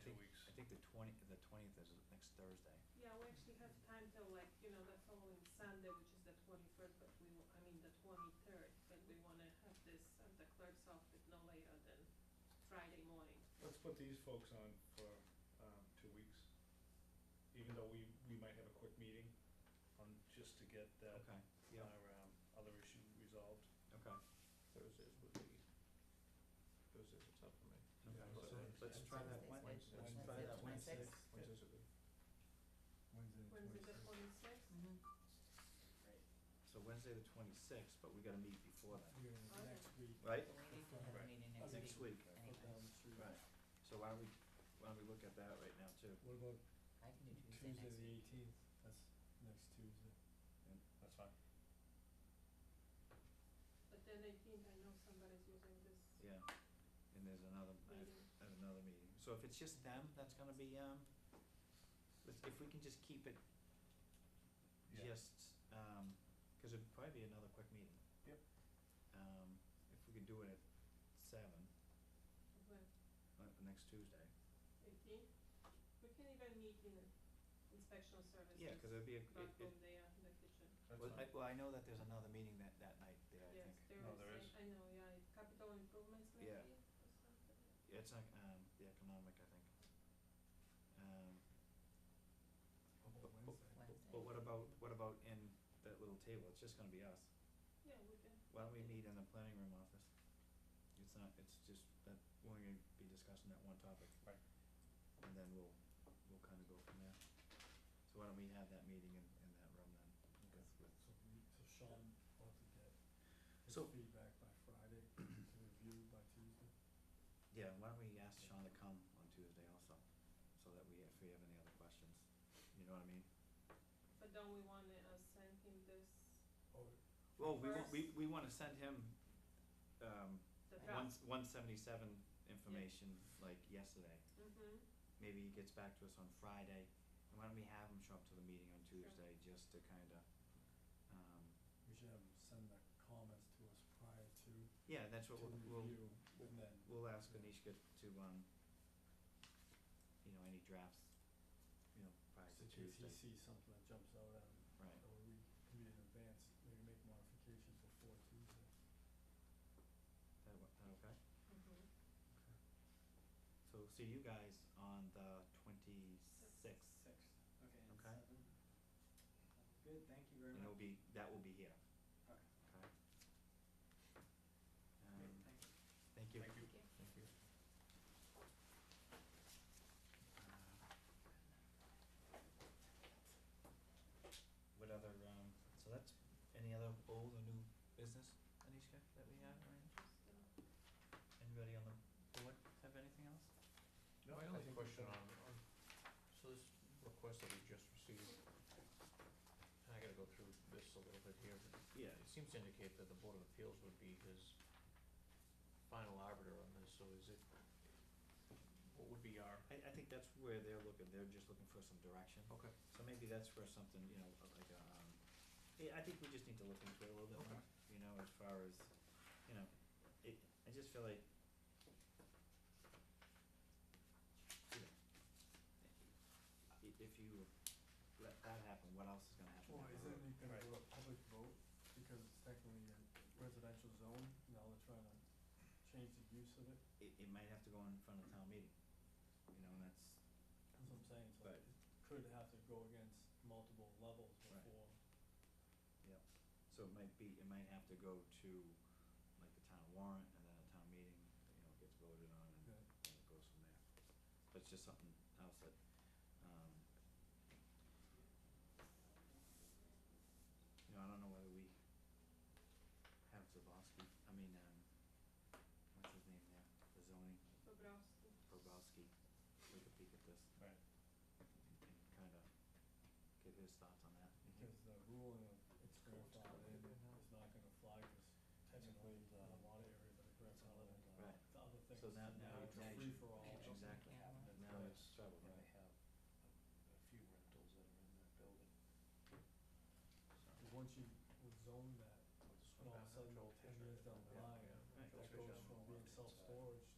think the twenty, the twentieth is next Thursday. Yeah, we actually have time till like, you know, the following Sunday, which is the twenty-first, but we, wa- I mean, the twenty-third, but we wanna have this at the clerk's office no later than Friday morning. Let's put these folks on for, um, two weeks, even though we, we might have a quick meeting on, just to get that, Okay, our, yeah, um, other issue resolved. okay, Thursdays would be, Thursdays are tough for me. okay, Yeah, so Wednesdays- let's try that Wed- let's Wednesdays- try that Wednesday. Wednesdays are good. Wednesday, the twenty-sixth? So Wednesday the twenty-sixth, but we gotta meet before that, Okay. right? We need to have a Right. meeting Next next week. week, anyway. right, so why don't we, why don't we look at that right now too? What about I can do Tuesday Tuesday next the week. eighteenth? That's next Tuesday. That's fine. But then eighteenth, I know somebody's using this Yeah, and there's another, I have, meeting. I have another meeting, so if it's just them, that's gonna be, um, let's, if we can just keep it Yeah. just, um, cause it'd probably be another quick meeting. Yep. Um, if we could do it at seven, uh, next Tuesday, Eighteenth? We can even meet in inspection services. yeah, cause it'd be a, it, Back it, room there in the kitchen. That's well, I, fine. well, I know that there's another meeting that, that night there, I think. Yes, there No, is, there is. I, I know, yeah, capital improvements maybe Yeah. or something. Yeah, It's like, um, the economic, I think. Um, but, Oh, but, Wednesday. but what about, what about in that little table, it's just gonna be us. Yeah, we can. Why don't we meet in the planning room office? It's not, it's just that, we're gonna be discussing that one topic. Right. And then we'll, we'll kinda go from there. So why don't we have that meeting in, in that room then? With, with, So we, so Sean will have to get his So- feedback by Friday to review by Tuesday. yeah, why don't we ask Sean to come on Tuesday also, so that we, if we have any other questions, you know what I mean? But don't we wanna uh, send him this, Or Well, we want, First- we, we wanna send him, um, the one, Right. draft? one seventy-seven information like yesterday. Mm-hmm, Maybe he gets back to us on Friday, and why don't we have him show up to the meeting on Sure. Tuesday just to kinda, um, we should have him send the comments to us prior to, yeah, that's to what we'll, we'll, review and then. we'll ask Anishka to, um, you know, any drafts, you know, prior Just to in case Tuesday, he sees something that jumps out at him, right, or we can be in advance, maybe make modifications before Tuesday. that, wa- that okay? mm-hmm. So see you guys on the twenty-sixth, Six, okay, and Okay. seven. Good, thank you very and it'll much. be, that will be here, Okay. okay? Great, Um, thank you. thank you. Thank you. Thank you. Uh, What other, um, so that's, any other old or new business, Anishka, that we have, right? Just, uh, Anybody on the board have anything else? No, I only question on, on, so this request that we just received, and I gotta go through this a little bit here, but Yeah. it seems to indicate that the Board of Appeals would be his final arbiter on this, so is it, what would be our? I, I think that's where they're looking, they're just looking for some direction, Okay. so maybe that's where something, you know, like, um, yeah, I think we just need to look into it a little bit more, you know, as far as, you know, it, I just feel like you know, i- if you let that happen, what else is gonna happen? down Well, the isn't road? it gonna Right. go to public vote, because it's technically a residential zone, now they're trying to change the use of it, It, it might have to go in front of town meeting, you know, and that's, that's what I'm saying, so Right. it could have to go against multiple levels Right. Mm-hmm. before. so it might be, it might have to go to like the town warrant and then a town meeting, you know, gets voted on and and Yeah. it goes from there. But it's just something else that, um, you know, I don't know whether we have Zabowski, I mean, um, what's his name there, the zoning, Bobrowski. Probowski, take a peek at this Right. and, and kind of get his thoughts on that. Because the ruling of it's grandfathered in is not gonna fly, cause technically, the lot area, but it's grandfathered in, the Right. the other things, So now, now, now it's now a you free should- for all. exactly, Yeah. now it's trouble, right? And they have a, a few rentals that are in that building. And Once you would zone that, So, and all of a sudden, ten years down the line, Yeah. Right. that goes from being self-storage